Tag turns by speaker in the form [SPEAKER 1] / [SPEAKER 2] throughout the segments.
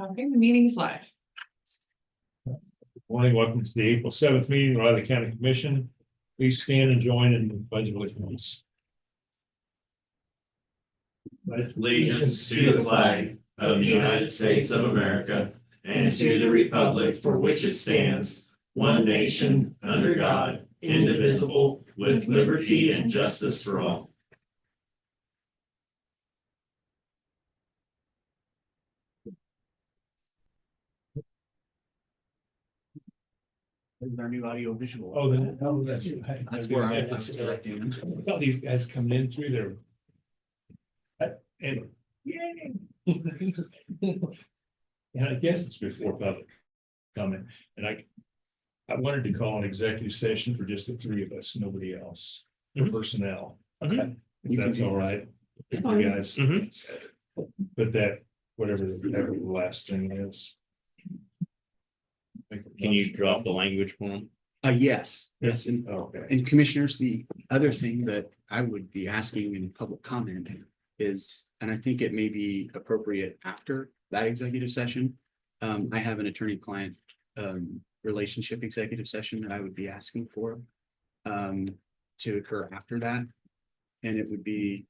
[SPEAKER 1] Okay, the meeting's live.
[SPEAKER 2] Morning, welcome to the April seventh meeting, of the Riley County Commission. Please stand and join in the pledge of allegiance.
[SPEAKER 3] allegiance to the flag of the United States of America and to the republic for which it stands, one nation, under God, indivisible, with liberty and justice for all.
[SPEAKER 4] Is our new audio visual?
[SPEAKER 2] Oh, then, oh, that's.
[SPEAKER 4] That's where I was
[SPEAKER 2] I thought these guys coming in through there. Uh, And, yay. And I guess it's before public comment, and I. I wanted to call an executive session for just the three of us, nobody else,
[SPEAKER 3] Mhm.
[SPEAKER 2] personnel.
[SPEAKER 3] Okay.
[SPEAKER 2] If that's all right, you
[SPEAKER 1] Fine.
[SPEAKER 2] guys. But that, whatever, whatever the last thing is.
[SPEAKER 3] Can you drop the language for them?
[SPEAKER 4] Uh, yes, yes, and,
[SPEAKER 2] Oh, Okay.
[SPEAKER 4] and commissioners, the other thing that I would be asking in public comment is, and I think it may be appropriate after that executive session. Um, I have an attorney-client, um, relationship executive session that I would be asking for, um, to occur after that. And it would be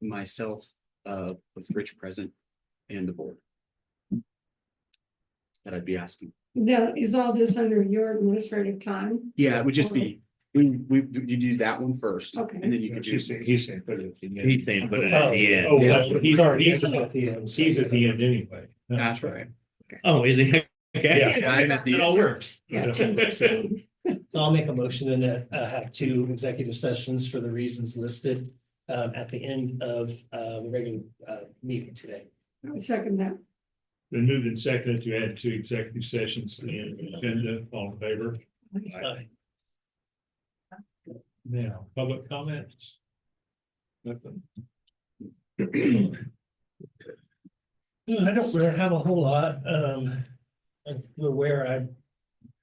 [SPEAKER 4] myself, uh, with Rich present and the board. That I'd be asking.
[SPEAKER 5] Now, is all this under your administrative time?
[SPEAKER 4] Yeah, it would just be, we, we, you do that one first.
[SPEAKER 5] Okay.
[SPEAKER 4] And then you can do.
[SPEAKER 2] He's saying, he's saying, put it. in.
[SPEAKER 3] He's saying put it at the
[SPEAKER 2] Oh,
[SPEAKER 3] end.
[SPEAKER 2] that's what he- he's at the end. He's at the end anyway.
[SPEAKER 4] That's right.
[SPEAKER 3] Oh, is it?
[SPEAKER 2] Yeah.
[SPEAKER 3] Okay.
[SPEAKER 4] Yeah, I'm at
[SPEAKER 3] It
[SPEAKER 4] the,
[SPEAKER 3] all works.
[SPEAKER 5] Yeah, ten fifteen.
[SPEAKER 6] So I'll make a motion and uh, uh, have two executive sessions for the reasons listed um, at the end of uh, the regular uh, meeting today.
[SPEAKER 5] I would second that.
[SPEAKER 2] Been moved and seconded to add two executive sessions for the agenda, all in favor?
[SPEAKER 6] Uh,
[SPEAKER 2] Aye. Now, public comments? Nothing.
[SPEAKER 6] I don't really have a whole lot. Um, I'm aware I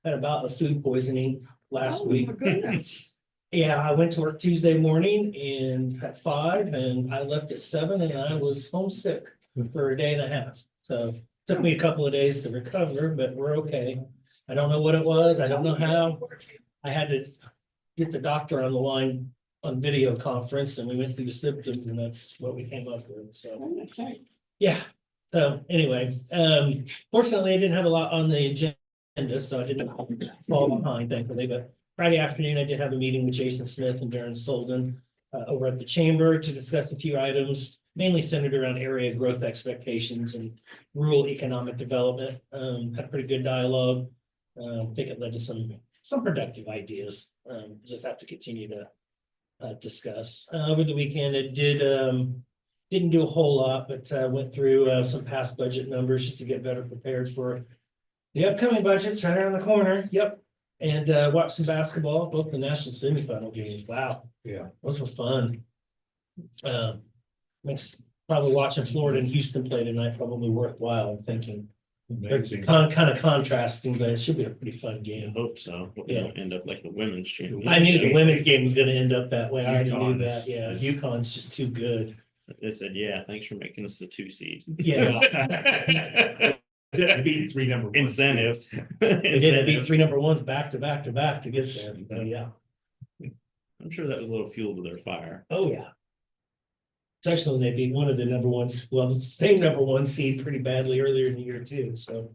[SPEAKER 6] had about a food poisoning last
[SPEAKER 5] Oh,
[SPEAKER 6] week.
[SPEAKER 5] my goodness.
[SPEAKER 6] Yeah, I went to work Tuesday morning and at five and I left at seven and I was homesick for a day and a half. So took me a couple of days to recover, but we're okay. I don't know what it was. I don't know how. I had to get the doctor on the line on video conference and we went through the symptoms and that's what we came up with, so. Yeah, so anyway, um, fortunately, I didn't have a lot on the agenda, so I didn't fall behind thankfully, but Friday afternoon, I did have a meeting with Jason Smith and Darren Solden uh, over at the chamber to discuss a few items, mainly centered around area growth expectations and rural economic development. Um, had a pretty good dialogue. Um, I think it led to some, some productive ideas. Um, just have to continue to uh, discuss. Uh, over the weekend, it did, um, didn't do a whole lot, but uh, went through uh, some past budget numbers just to get better prepared for the upcoming budget's right around the corner. Yep. And uh, watched some basketball, both the national semifinal games. Wow.
[SPEAKER 2] Yeah.
[SPEAKER 6] Those were fun. Um, makes probably watching Florida and Houston play tonight probably worthwhile, I'm thinking.
[SPEAKER 2] Amazing.
[SPEAKER 6] Kind of, kind of contrasting, but it should be a pretty fun game.
[SPEAKER 3] Hope so. We
[SPEAKER 6] Yeah.
[SPEAKER 3] don't End up like the women's champion.
[SPEAKER 6] I knew the women's game was gonna end up that way. I already knew
[SPEAKER 2] UConn
[SPEAKER 6] that.
[SPEAKER 2] is-
[SPEAKER 6] Yeah,
[SPEAKER 2] is-
[SPEAKER 6] UConn's just too good.
[SPEAKER 3] They said, yeah, thanks for making us the two seed.
[SPEAKER 6] Yeah,
[SPEAKER 2] That beat three number. ones.
[SPEAKER 3] Incentive.
[SPEAKER 6] they did beat
[SPEAKER 3] Incentive.
[SPEAKER 6] three number ones back to back to back to get there. But yeah.
[SPEAKER 3] I'm sure that was a little fuel to their fire.
[SPEAKER 6] Oh, yeah. Especially when they beat one of the number ones, well, the same number one seed pretty badly earlier in the year too, so.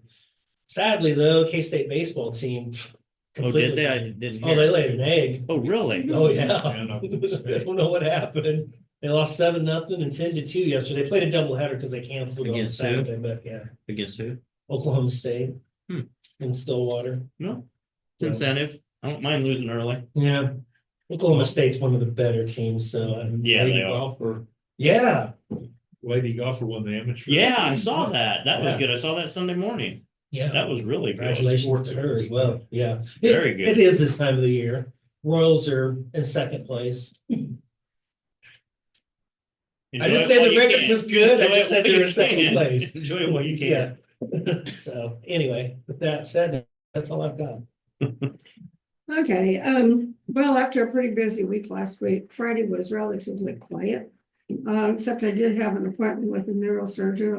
[SPEAKER 6] Sadly, though, K-State baseball
[SPEAKER 3] Oh,
[SPEAKER 6] team.
[SPEAKER 3] did
[SPEAKER 6] completely-
[SPEAKER 3] they? I didn't
[SPEAKER 6] Oh, they
[SPEAKER 3] hear.
[SPEAKER 6] laid an egg.
[SPEAKER 3] Oh, really?
[SPEAKER 6] Oh, yeah.
[SPEAKER 2] And, uh,
[SPEAKER 6] I don't know what happened. They lost seven, nothing and ten to two yesterday. They played a doubleheader because they canceled on
[SPEAKER 3] Against who?
[SPEAKER 6] Saturday, but yeah,
[SPEAKER 3] Against who?
[SPEAKER 6] Oklahoma State.
[SPEAKER 3] Hmm.
[SPEAKER 6] And Stillwater.
[SPEAKER 3] No. It's incentive. I don't mind losing early.
[SPEAKER 6] Yeah. Oklahoma State's one of the better teams, so, uh,
[SPEAKER 3] Yeah,
[SPEAKER 2] Lady
[SPEAKER 3] they are.
[SPEAKER 2] golfer,
[SPEAKER 6] yeah,
[SPEAKER 2] lady golfer won the amateur.
[SPEAKER 3] Yeah, I saw that. That was
[SPEAKER 2] Yeah.
[SPEAKER 3] good. I saw that Sunday morning.
[SPEAKER 6] yeah.
[SPEAKER 3] That was really good.
[SPEAKER 6] Congratulations to her as well, yeah. It-
[SPEAKER 3] Very good.
[SPEAKER 6] It is this time of the year. Royals are in second place. I didn't say the record was good, I
[SPEAKER 3] Enjoy
[SPEAKER 6] just
[SPEAKER 3] it
[SPEAKER 6] said
[SPEAKER 3] while
[SPEAKER 6] they were
[SPEAKER 3] you
[SPEAKER 6] in second
[SPEAKER 3] can.
[SPEAKER 6] place.
[SPEAKER 3] Enjoy it while you
[SPEAKER 6] Yeah.
[SPEAKER 3] can.
[SPEAKER 6] So anyway, with that said, that's all I've got.
[SPEAKER 5] Okay, um, well, after a pretty busy week last week, Um, Friday was relatively quiet. Uh, except I did have an appointment with a neurosurgeon